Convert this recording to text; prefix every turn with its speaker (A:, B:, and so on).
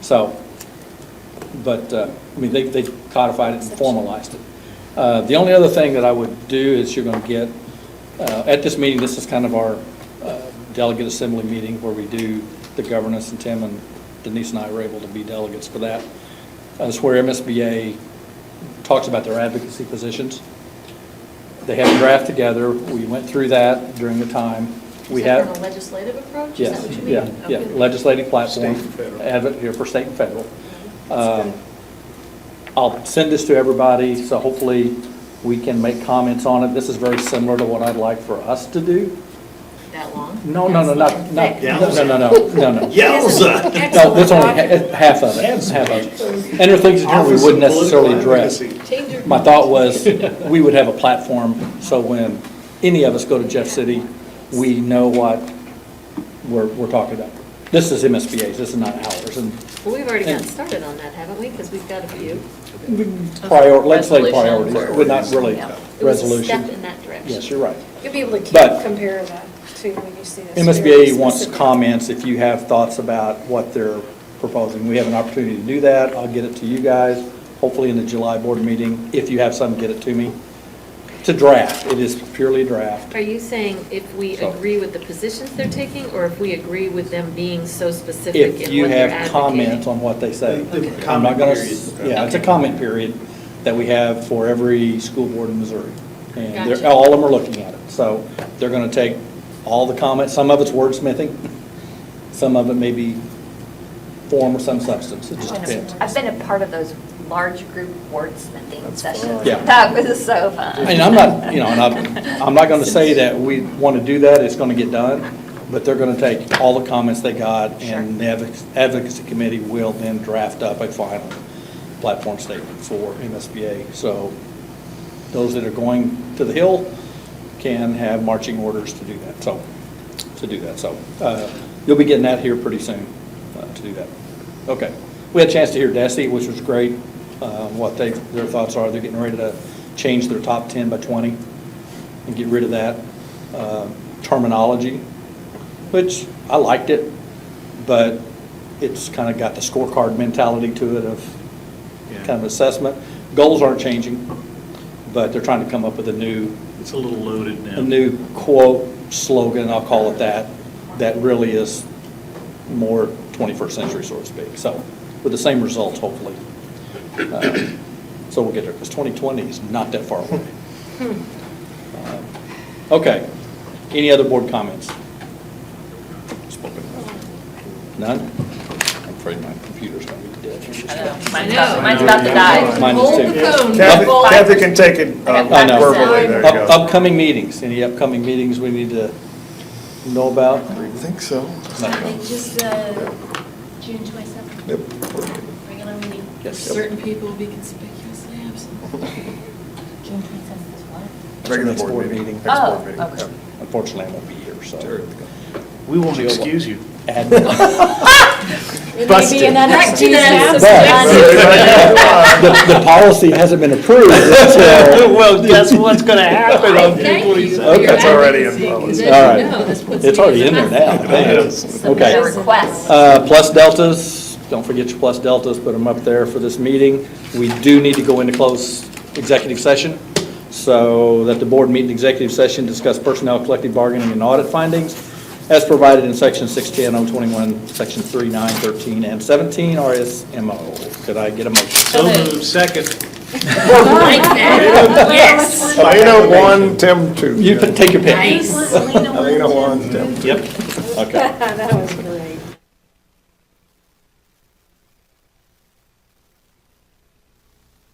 A: So, but, uh, I mean, they, they codified it and formalized it. Uh, The only other thing that I would do is you're going to get, uh, at this meeting, this is kind of our uh, delegate assembly meeting where we do the governance, and Tim and Denise and I were able to be delegates for that. That's where MSBA talks about their advocacy positions. They have a draft together, we went through that during the time. We
B: Is that
A: have.
B: from a legislative approach? Is that
A: Yes,
B: what you mean?
A: yeah, yeah,
B: Okay.
A: legislative platform,
C: State and federal.
A: advocate here for state and federal. Um, I'll send this to everybody, so hopefully we can make comments on it. This is very similar to what I'd like for us to do.
B: That long?
A: No, no, no, not, not,
C: Yeah.
A: no, no, no, no, no, no.
C: Yowza!
A: No, that's only ha- half of it, half of it. And there are things that we
C: Office of
A: wouldn't necessarily
C: Political
A: address.
C: Advocacy.
B: Change your.
A: My thought was, we would have a platform, so when any of us go to Jeff City, we know what we're, we're talking about. This is MSBA's, this is not ours, and
B: Well, we've already gotten started on that, haven't we? Because we've got a few.
A: prior, legislative
B: Resolution.
A: priorities, but not really
B: Yeah. It was a step in
A: resolution.
B: that direction.
A: Yes, you're right.
D: You'll be able to
A: But-
D: keep- compare that to when you see this.
A: MSBA wants
D: Specific.
A: comments if you have thoughts about what they're proposing. We have an opportunity to do that. I'll get it to you guys, hopefully in the July board meeting. If you have some, get it to me. It's a draft, it is purely a draft.
B: Are you saying if we
A: So-
B: agree with the positions they're taking, or if we agree with them being so specific
A: If
B: in
A: you
B: what they're
A: have comments
B: advocating?
A: on what they say.
C: The- the
A: I'm not
C: comment
A: gonna-
C: period.
A: Yeah, it's a
B: Okay.
A: comment period that we have for every school board in Missouri. And
B: Gotcha.
A: they're, all of them are looking at it. So they're going to take all the comments, some of it's wordsmithing, some of it may be form or some substance, it just depends.
E: I've been a part of those large group wordsmithing sessions.
A: Yeah.
E: That was so fun.
A: And I'm not, you know, and I'm, I'm not going to say that we want to do that, it's going to get done, but they're going to take all the comments they got, and the advoc- advocacy committee will then draft up a final platform statement for MSBA. So those that are going to the Hill can have marching orders to do that, so, to do that. So uh, you'll be getting that here pretty soon uh, to do that. Okay. We had a chance to hear Desi, which was great, uh, what they, their thoughts are. They're getting ready to change their top 10 by 20 and get rid of that uh, terminology, which I liked it, but it's kind of got the scorecard mentality to it of
C: Yeah.
A: kind of assessment. Goals aren't changing, but they're trying to come up with a new,
C: It's a little loaded now.
A: a new quote slogan, I'll call it that, that really is more 21st century, so to speak. So with the same results, hopefully. Uh, So we'll get there, because 2020 is not that far away. Uh, Okay. Any other board comments? Spoken. None? I'm afraid my computer's going to be dead.
E: Mine's
B: I know.
E: about- mine's about to die.
A: Mine is
B: Hold
A: too.
B: the phone.
A: Kathy-
B: Hold-
F: Kathy can take it
E: I
F: uh,
E: got
A: I know.
F: verbally,
B: Oh.
F: there you
A: Up-
F: go.
A: Upcoming meetings, any upcoming meetings we need to know about?
F: I think so.
G: I think just uh, June 27th,
F: Yep.
G: regular meeting.
A: Yes.
H: Certain people will be conspicuously absent.
G: June 27th is what?
F: Regular
A: Next
F: board meeting. next
E: Oh,
F: board meeting,
E: okay.
F: yeah.
A: Unfortunately, I won't be here, so.
C: We won't excuse you.
A: Admin.
C: Busted.
A: The the policy hasn't been approved until,
C: Well, guess what's gonna happen on June
B: Thank you.
C: twenty-seventh?
A: Okay.
F: It's already in
H: Advocacy, 'cause
F: policy.
H: as
A: All
H: you
A: right.
H: know, this puts
A: it's
H: me
A: already
H: as
A: in
H: a
A: there now.
H: hostage.
A: man.
E: Submit a
A: Okay.
E: request.
A: Uh, Plus deltas, don't forget your plus deltas, put them up there for this meeting. We do need to go into close executive session, so that the board meet in executive session, discuss personnel, collective bargaining, and audit findings, as provided in section 610.021, section 3, 9, 13, and 17 RSMO. Could I get a motion?
C: So moved, second.
B: Like that. Yes.
F: Lena one, Tim two.
A: You
F: Yeah.
A: take your pick.
B: Nice.
G: Lena
F: Lena
G: wants
F: one, Tim two.
A: Yep, okay.
D: That was great.